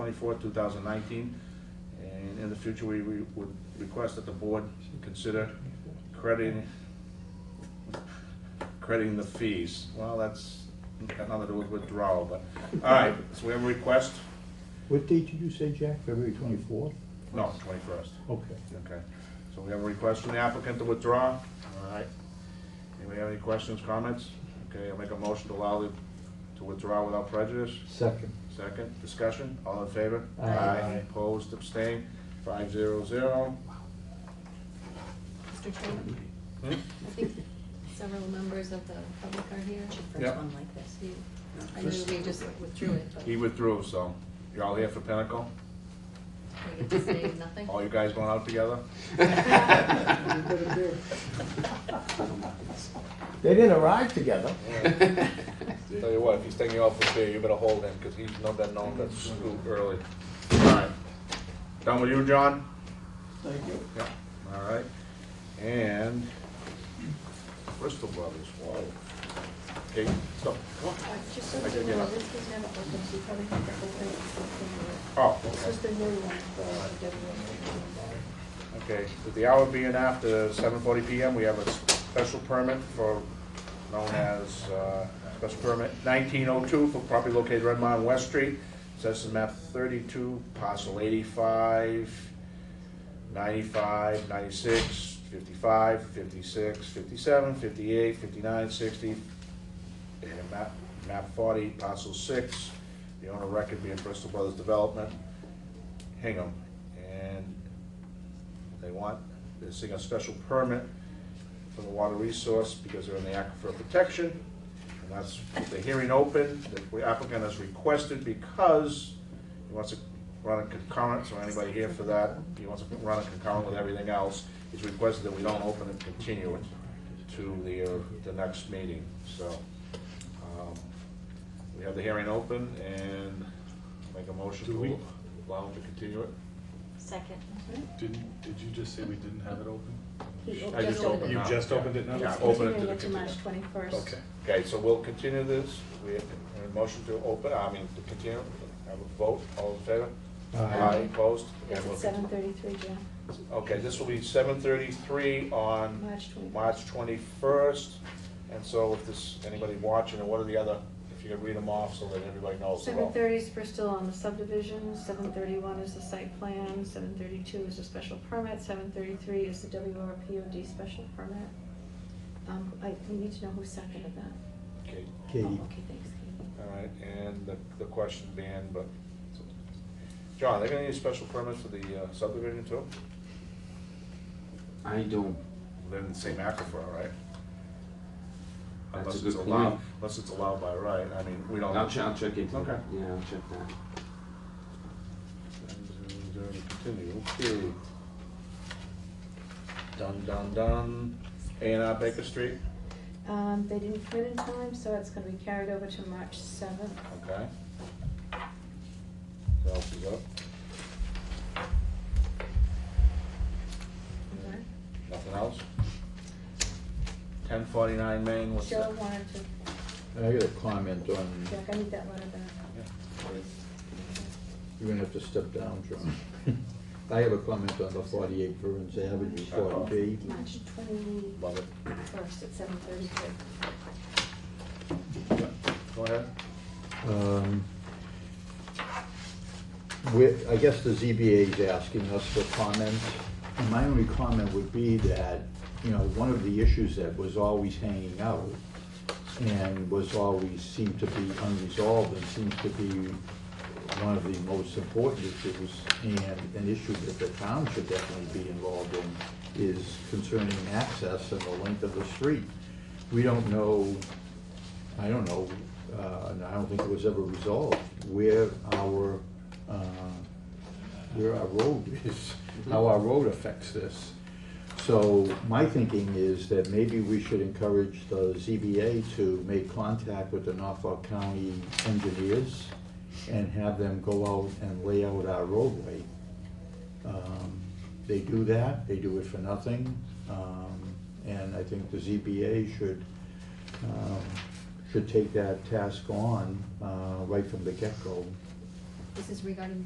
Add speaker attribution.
Speaker 1: twenty-fourth, two thousand nineteen. And in the future, we, we would request that the board consider crediting, crediting the fees. Well, that's got nothing to do with withdrawal, but, all right, so we have a request?
Speaker 2: What date did you say, Jack? February twenty-fourth?
Speaker 1: No, twenty-first.
Speaker 2: Okay.
Speaker 1: Okay, so we have a request from the applicant to withdraw. All right. Anybody have any questions, comments? Okay, I'll make a motion to allow the, to withdraw without prejudice.
Speaker 2: Second.
Speaker 1: Second, discussion, all in favor?
Speaker 2: Aye.
Speaker 1: Opposed, abstained, five zero zero.
Speaker 3: Mr. Chairman,
Speaker 1: Hmm?
Speaker 3: I think several members of the public are here.
Speaker 1: Yep.
Speaker 3: one like this. I knew we just withdrew it, but
Speaker 1: He withdrew, so, you all here for Pinnacle?
Speaker 3: we get to say nothing.
Speaker 1: All you guys going out together?
Speaker 2: They didn't arrive together.
Speaker 1: Tell you what, if he's taking you out for beer, you better hold him, because he's not been known to scoop early. All right. Done with you, John? Thank you. Yeah, all right. And Bristol Brothers, wow. Okay, so, come on.
Speaker 3: Uh, Just so
Speaker 1: I
Speaker 3: you
Speaker 1: did, yeah.
Speaker 3: know, this was never open, so you probably have to open it. from
Speaker 1: Oh,
Speaker 3: the- This
Speaker 1: okay.
Speaker 3: is the new one. for the WSJ.
Speaker 1: Okay, with the hour being after seven forty PM, we have a special permit for, known as, uh, special permit nineteen oh two for property located Red Mountain West Street. Says in map thirty-two, parcel 85, 95, 96, 55, 56, 57, 58, 59, 60, and map, map forty, parcel six. The owner record being Bristol Brothers Development, Hingham. And they want, they're seeking a special permit for the water resource because they're in the aquifer protection. And that's the hearing open, the applicant has requested because he wants to run a concurrent, so anybody here for that, he wants to run a concurrent with everything else. He's requested that we don't open and continue it to the, uh, the next meeting, so. um, We have the hearing open and make a motion
Speaker 4: Do we-
Speaker 1: to allow him to continue it.
Speaker 5: Second.
Speaker 4: Didn't, did you just say we didn't have it open?
Speaker 3: He
Speaker 1: I just opened it
Speaker 4: You
Speaker 1: up.
Speaker 4: just opened it now?
Speaker 1: Yeah, open it to the
Speaker 3: Continue it to March
Speaker 1: continue.
Speaker 3: twenty-first.
Speaker 4: Okay.
Speaker 1: Okay, so we'll continue this. We have a motion to open, I mean, to continue, have a vote, all in favor?
Speaker 2: Aye.
Speaker 1: Opposed? And
Speaker 3: It's
Speaker 1: we'll
Speaker 3: at seven thirty-three, John,
Speaker 1: continue. Okay, this will be seven thirty-three on
Speaker 3: March twenty-first.
Speaker 1: March twenty-first. And so if this, anybody watching, or what are the other, if you could read them off so that everybody knows. they're all-
Speaker 3: Seven thirty is Bristol on the subdivision, seven thirty-one is the site plan, seven thirty-two is a special permit, seven thirty-three is the WRPOD special permit. Um, I, we need to know who seconded that.
Speaker 1: Okay,
Speaker 2: Katie.
Speaker 3: Oh, Okay, thanks, Katie.
Speaker 1: all right, and the, the question being, but, John, are they gonna need special permits for the uh, subdivision too?
Speaker 6: I don't,
Speaker 1: They're in the same aquifer, right?
Speaker 6: That's a
Speaker 1: Unless
Speaker 6: good
Speaker 1: it's allowed,
Speaker 6: point.
Speaker 1: unless it's allowed by right, I mean, we don't.
Speaker 6: I'll check, I'll check into
Speaker 1: Okay.
Speaker 6: that, yeah, I'll check that.
Speaker 1: And, uh, Continue, okay. Dun, dun, dun, A and R Baker Street,
Speaker 3: Um, they didn't come in in time, so it's gonna be carried over to March seventh.
Speaker 1: okay. What else is up? Nothing else? Ten forty-nine Main, what's that?
Speaker 3: Cheryl wanted to,
Speaker 2: I got a comment on,
Speaker 3: Jack, I need that letter back.
Speaker 1: Yeah.
Speaker 2: you're gonna have to step down, John. I have a comment on the forty-eight Burns Avenue, forty B.
Speaker 3: March
Speaker 1: Love it.
Speaker 3: twenty-first at seven thirty-three.
Speaker 1: Yeah. Go ahead.
Speaker 2: Um, we- I guess the ZBA is asking us for comments. And My only comment would be that, you know, one of the issues that was always hanging out and was always seemed to be unresolved and seems to be one of the most important issues and an issue that the town should definitely be involved in is concerning access and the length of the street. We don't know I don't know, uh, and I don't think it was ever resolved, where our, uh, where our road is, how our road affects this. So my thinking is that maybe we should encourage the ZBA to make contact with the Norfolk County engineers and have them go out and lay out our roadway. Um, They do that, they do it for nothing, um, and I think the ZBA should, um, should take that task on uh, right from the get-go.
Speaker 3: This is regarding